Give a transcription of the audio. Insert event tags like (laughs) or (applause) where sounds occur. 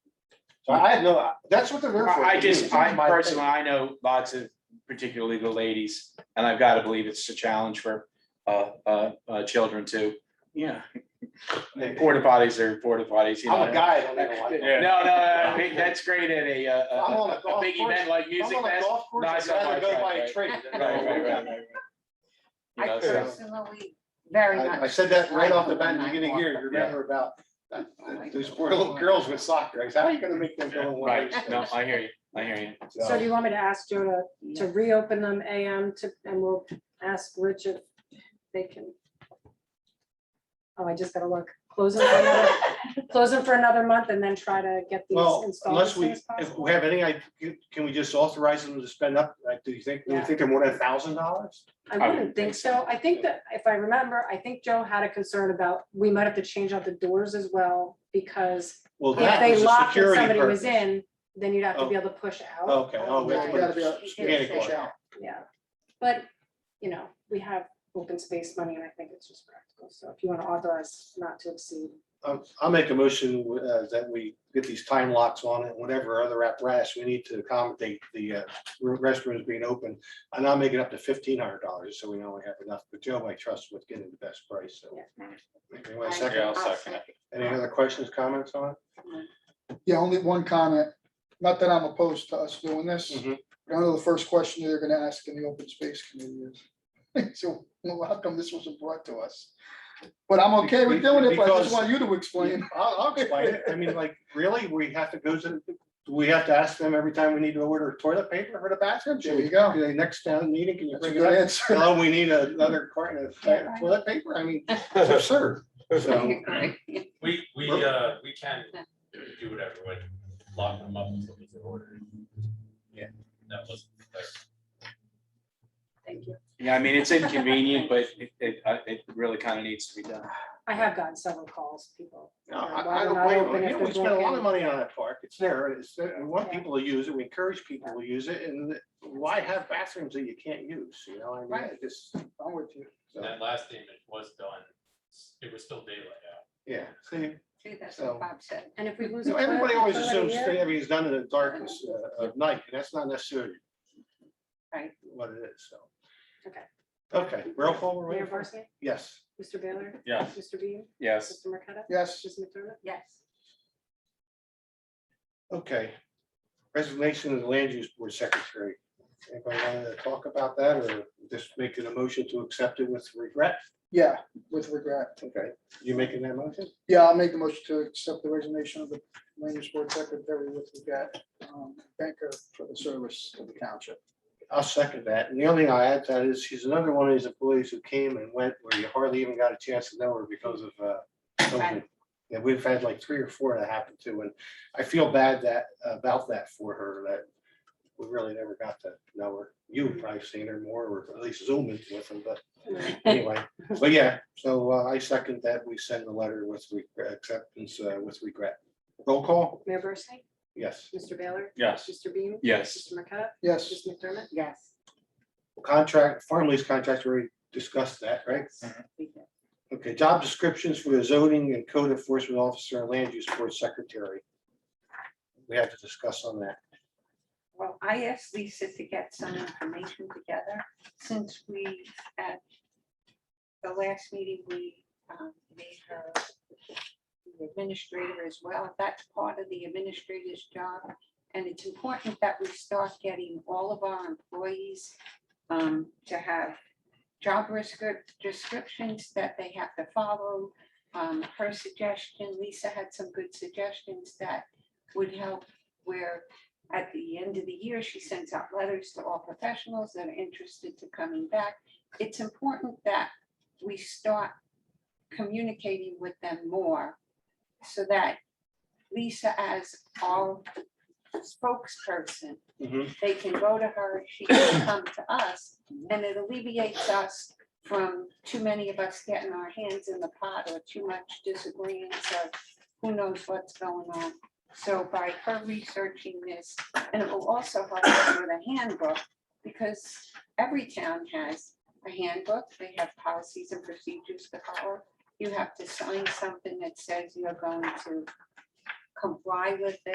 So I had no, that's what they're there for. I I just, I My- personally, I know lots of particularly the ladies, and I've got to believe it's a challenge for uh, uh, uh, children too. Yeah. Porta potties are porta potties, you know. I'm a guy, I don't even like No, them. no, I mean, that's great at a, uh, I'm on a, a a golf big course. event like I'm music on a fest. golf course, No, I I'd saw my rather go track, by a right. train. than go Right, right, right, around. right, right. You I know, so- personally very much. I I said that right off the bat in the like beginning Walker. here, you remember about uh, those poor little girls with soccer. I said, how are you gonna make them go in one of Right, those no, things?" I hear you, I hear you. So do you want me to ask Joe to, to reopen them AM to, and we'll ask Rich if they can? Oh, I just gotta look, close them for another, close them for another month and then try to get these Well, installed. unless as we, soon as if possible. we have any, I, can we just authorize them to spend up, like, do you think, do you Yeah. think they're more than a thousand dollars? I wouldn't think so. I think that, if I remember, I think Joe had a concern about, we might have to change out the doors as well, because Well, if that they was a locked and security somebody was purpose. in, then you'd have to be Oh. able to push out. Okay, oh, we have to Yeah, put you a spaghetti gotta cord. Yeah, but, you know, we have open space money and I think it's just practical. So if you want to authorize not to exceed. I'll, I'll make a motion uh, that we get these time locks on it, whatever other apparatus we need to accommodate the uh, restrooms being open. And I'll make it up to fifteen hundred dollars, so we know we have enough, but Joe, I trust with getting the best price, so. Anyone I- second, I'll second it. any other questions, comments on Yeah, only one comment. Not that I'm opposed to us doing this. Mhm. I know the first question they're gonna ask in the open space committee is, (laughs) so well, how come this wasn't brought to us? But I'm okay with doing it, but I Because- just want you to it? explain. I'll, I'll explain it. I mean, like, really, we have to go to, do we have to ask them every time we need to order toilet paper for the bathroom? There you go. The next town meeting, can you That's a bring good it up? answer. (laughs) Hello, we need another carton of toilet paper? I mean, it's absurd. So, We, we, uh, we can do whatever, with lock them up until we get ordered. Yeah. That was, Thank you. Yeah, I mean, it's inconvenient, but it, it, uh, it really kind of needs to be done. I have gotten several calls, people. No, you know, I- why I would don't blame open them. You if know, they're We spend a lot of broken? money on that park. It's there. It's, there. we want Yeah. people to use it. We encourage people to use it. And why have bathrooms that you can't use, you know? I mean, Right. I just, I'm with you. so, that last statement was done, it was still daylight out. yeah. See, See, that's what Bob said. And if we lose. so a toilet- everybody always toilet a assumes year, that everything's done in the darkness uh, of night, and that's not necessarily Right. what it is, so. Okay. Okay, roll call, we're Mayor waiting for- Barsney, yes. Mr. Baylor, Yeah. Mr. Bean, Yes. Mr. Marqueta, Yes, Mrs. McDermott. (laughs) Yes. Okay. Resignation of the land use board secretary. Anybody want to talk about that or just making a motion to accept it with regret? yeah, with regret. Okay, you making that motion? Yeah, I'll make the motion to accept the resignation of the land use board secretary with regret. um, Thank her for the service to the township. I'll second that. And the only thing I add to that is she's another one of these employees who came and went where you hardly even got a chance to know her because of uh, COVID. Right. Yeah, we've had like three or four that happened to, and I feel bad that, about that for her, that we really never got to know her. You've probably seen her more, or at least Zoom into with her, but anyway, but yeah, so uh, I second that we send the letter with regret- acceptance uh, with regret. Roll call? Mayor Barsney, Yes. Mr. Baylor, Yes. Mr. Bean. Yes. Mr. Marqueta, Yes. Mrs. McDermott. Yes. Contract, farm lease contract, we already discussed that, right? We did. Okay, job descriptions for the zoning and code enforcement officer and land use board secretary. We have to discuss on that. Well, I asked Lisa to get some information together since we, at the last meeting, we um, made her the administrator as well. That's part of the administrator's job. And it's important that we start getting all of our employees um, to have job descrip- descriptions that they have to follow. Um, Her suggestion, Lisa had some good suggestions that would help where at the end of the year, she sends out letters to all professionals that are interested to coming back. It's important that we start communicating with them more so that Lisa, as our spokesperson, they can go to her, she can come to us, and it alleviates us from too many of us getting our hands in the pot or too much disagreements or who knows what's going on. So by her researching this, and it will also help us with a handbook, because every town has a handbook, they have policies and procedures to follow. You have to sign something that says you're going to comply with it.